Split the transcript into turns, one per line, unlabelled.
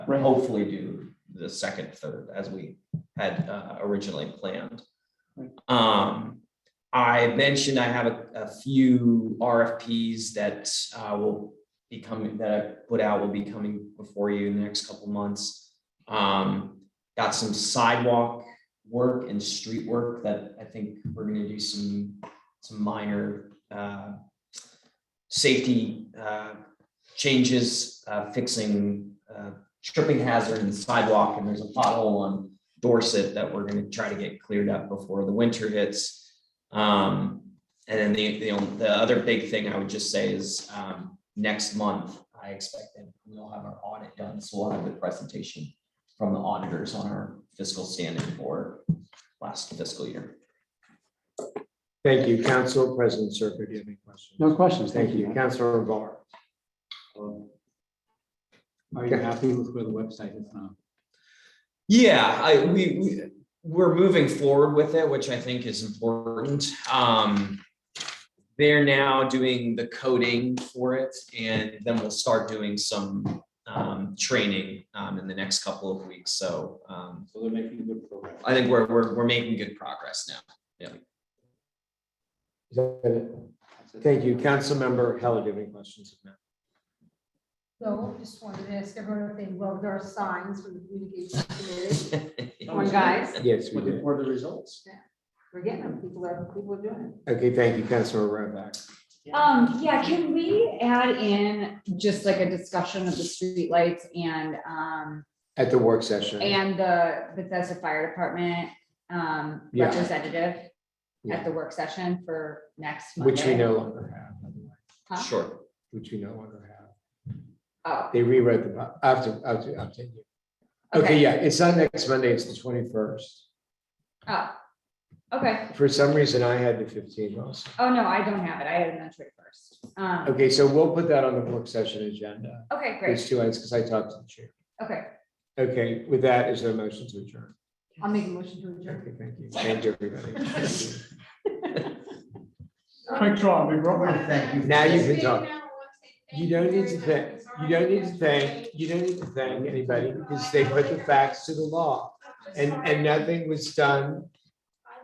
Right.
hopefully do the second, third, as we had uh, originally planned.
Right.
Um, I mentioned I have a, a few RFPs that uh, will be coming, that I put out will be coming before you in the next couple months. Um, got some sidewalk work and street work that I think we're gonna do some, some minor uh, safety uh, changes, uh, fixing uh, tripping hazard in the sidewalk, and there's a pothole on Dorset that we're gonna try to get cleared up before the winter hits. Um, and then the, the, on- the other big thing I would just say is, um, next month, I expect that we'll have our audit done, so we'll have the presentation from the auditors on our fiscal standing for last fiscal year.
Thank you, Council President Serker, do you have any questions?
No questions,
Thank you, Councilor Var.
Are you happy with where the website is now?
Yeah, I, we, we, we're moving forward with it, which I think is important. Um, they're now doing the coding for it and then we'll start doing some, um, training, um, in the next couple of weeks. So, um,
So they're making good progress.
I think we're, we're, we're making good progress now.
Is that it? Thank you, Councilmember Heller, do you have any questions?
So just wanted to ask everyone if they love our signs from the communications committee. Come on, guys,
Yes, we
Looking
do.
for the results.
we're getting them. People are, people are doing
Okay, thank you, Councilor Rovak.
Um, yeah, can we add in just like a discussion of the streetlights and, um,
At the work session.
and the Bethesda Fire Department, um,
Yeah.
representative
Yeah.
at the work session for next Monday?
Which we no longer have, by the way,
Huh?
Sure.
which we no longer have.
Oh,
They rewrote the, po- I have to, I have to update you. Okay,
okay,
yeah, it's not next Monday, it's the twenty-first.
oh, okay.
For some reason, I had the fifteen also.
Oh, no, I don't have it. I had it on Twitter first. Um,
Okay, so we'll put that on the work session agenda.
okay,
These
great.
two items, because I talked to the chair.
Okay,
Okay, with that, is there a motion to adjourn?
it. I'll make a motion to adjourn.
Okay, thank you. Thank you, everybody.
Quick draw, we wrote one.
Thank you.
Now you can talk. You don't need to thank, you don't need to thank, you don't need to thank anybody because they put the facts to the law. And, and nothing was done